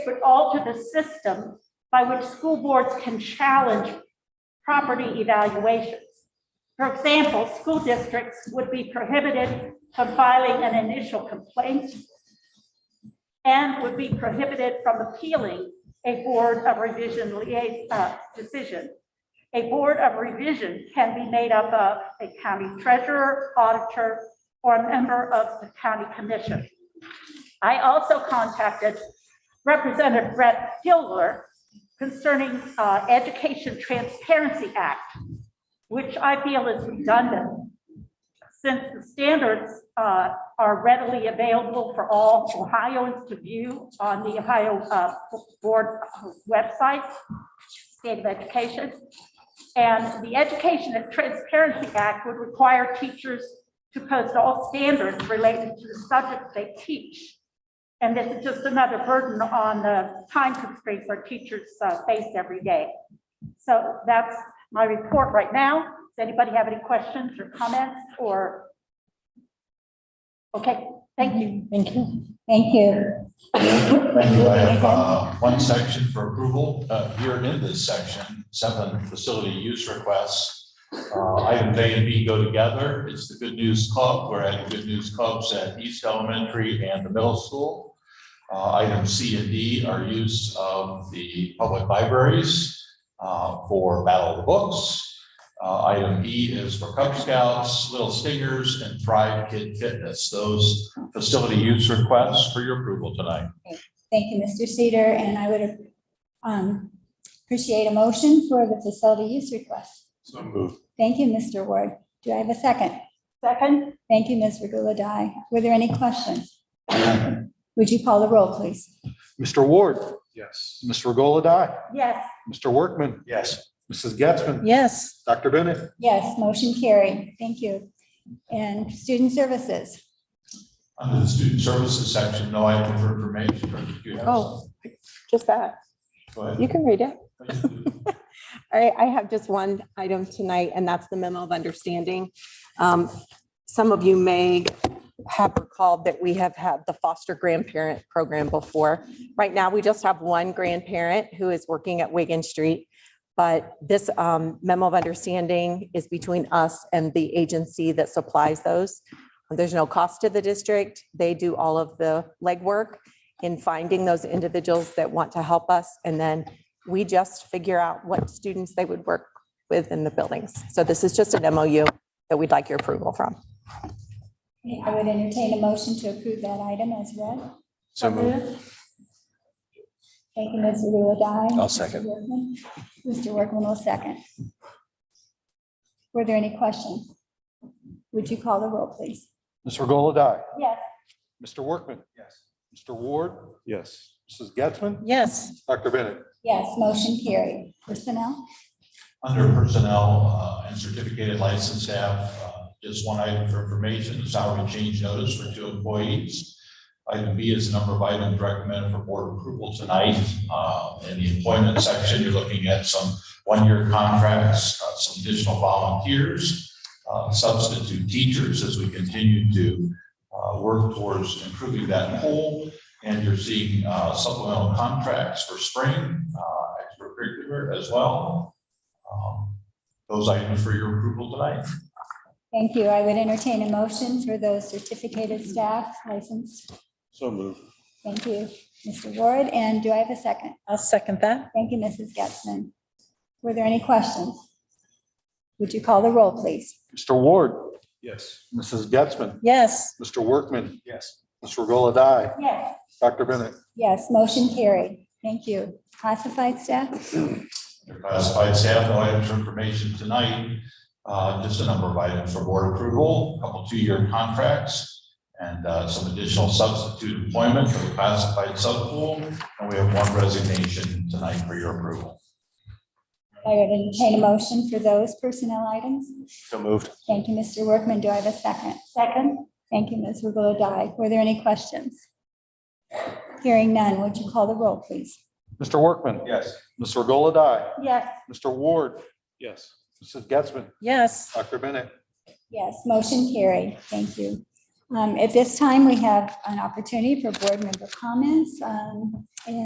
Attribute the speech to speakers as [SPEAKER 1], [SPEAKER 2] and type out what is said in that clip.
[SPEAKER 1] would alter the system by which school boards can challenge property evaluations. For example, school districts would be prohibited from filing an initial complaint and would be prohibited from appealing a board of revision lia- uh, decision. A board of revision can be made up of a county treasurer, auditor, or a member of the county commission. I also contacted Representative Brett Gilbert concerning uh, Education Transparency Act, which I feel is redundant since the standards uh, are readily available for all Ohioans to view on the Ohio uh, Board uh, website, State of Education. And the Education and Transparency Act would require teachers to post all standards related to the subject they teach. And this is just another burden on the time constraints our teachers uh, face every day. So that's my report right now. Does anybody have any questions or comments or? Okay, thank you.
[SPEAKER 2] Thank you. Thank you.
[SPEAKER 3] Thank you. I have uh, one section for approval. Uh, Here in this section, seven facility use requests. Uh, Items A and B go together. It's the Good News Club. We're adding Good News Clubs at East Elementary and the middle school. Uh, Items C and D are use of the public libraries uh, for Battle of the Books. Uh, Item E is for Cub Scouts, Little Stingers, and Thrive Kid Fitness. Those facility use requests for your approval tonight.
[SPEAKER 2] Thank you, Mr. Cedar, and I would um, appreciate a motion for the facility use request.
[SPEAKER 3] So moved.
[SPEAKER 2] Thank you, Mr. Ward. Do I have a second?
[SPEAKER 1] Second,
[SPEAKER 2] Thank you, Ms. Regola-Dye. Were there any questions? Would you call the roll, please?
[SPEAKER 4] Mr. Ward,
[SPEAKER 3] Yes.
[SPEAKER 4] Ms. Regola Dye,
[SPEAKER 1] yes,
[SPEAKER 4] Mr. Workman,
[SPEAKER 3] Yes.
[SPEAKER 4] Mrs. Getzmann,
[SPEAKER 5] Yes,
[SPEAKER 4] Dr. Bennett.
[SPEAKER 2] Yes, motion carried. Thank you. And student services.
[SPEAKER 3] Under the student services section, no item for information, or if you have.
[SPEAKER 6] Oh, just that.
[SPEAKER 3] Go ahead.
[SPEAKER 6] You can read it. I, I have just one item tonight, and that's the memo of understanding. Um, Some of you may have recalled that we have had the foster grandparent program before. Right now, we just have one grandparent who is working at Wigan Street. But this um, memo of understanding is between us and the agency that supplies those. There's no cost to the district. They do all of the legwork in finding those individuals that want to help us. And then we just figure out what students they would work with in the buildings. So this is just an MOU that we'd like your approval from.
[SPEAKER 2] I would entertain a motion to approve that item as read.
[SPEAKER 4] So moved.
[SPEAKER 2] Thank you, Ms. Regola-Dye.
[SPEAKER 4] I'll
[SPEAKER 2] Mr.
[SPEAKER 4] second.
[SPEAKER 2] Workman. Mr. Workman will second. Were there any questions? Would you call the roll, please?
[SPEAKER 4] Ms. Regola Dye,
[SPEAKER 1] yes,
[SPEAKER 4] Mr. Workman. Yes. Mr. Ward. Yes. Mrs. Getzmann,
[SPEAKER 5] yes,
[SPEAKER 4] Dr. Bennett.
[SPEAKER 2] Yes, motion carried. Personnel?
[SPEAKER 3] Under personnel uh, and certificated licensed staff, uh, just one item for information, salary change notice for two employees. Item B is the number of items recommended for board approval tonight. Uh, In the employment section, you're looking at some one-year contracts, uh, some additional volunteers, uh, substitute teachers as we continue to uh, work towards improving that pool. And you're seeing uh, supplemental contracts for spring, uh, extracurricular as well. Um, Those items for your approval tonight.
[SPEAKER 2] Thank you. I would entertain a motion for those certificated staff licensed.
[SPEAKER 4] So moved.
[SPEAKER 2] Thank you, Mr. Ward. And do I have a second?
[SPEAKER 5] I'll second that.
[SPEAKER 2] Thank you, Mrs. Getzmann. Were there any questions? Would you call the roll, please?
[SPEAKER 4] Mr. Ward. Yes. Mrs. Getzmann,
[SPEAKER 5] Yes,
[SPEAKER 4] Mr. Workman. Yes. Ms. Regola Dye,
[SPEAKER 1] yes,
[SPEAKER 4] Dr. Bennett.
[SPEAKER 2] Yes, motion carried. Thank you. Classified staff?
[SPEAKER 3] Under Classified staff, no items for information tonight. Uh, Just a number of items for board approval, a couple two-year contracts, and uh, some additional substitute employment for the classified subpool. And we have one resignation tonight for your approval.
[SPEAKER 2] I would entertain a motion for those personnel items.
[SPEAKER 4] So moved.
[SPEAKER 2] Thank you, Mr. Workman. Do I have a second?
[SPEAKER 1] second,
[SPEAKER 2] Thank you, Ms. Regola Dye. Were there any questions? Hearing none, would you call the roll, please?
[SPEAKER 4] Mr. Workman.
[SPEAKER 3] Yes.
[SPEAKER 4] Ms. Regola Dye,
[SPEAKER 1] yes,
[SPEAKER 4] Mr. Ward. Yes. Mrs. Getzmann,
[SPEAKER 5] yes,
[SPEAKER 4] Dr. Bennett.
[SPEAKER 2] Yes, motion carried. Thank you. Um, At this time, we have an opportunity for board member comments. Um,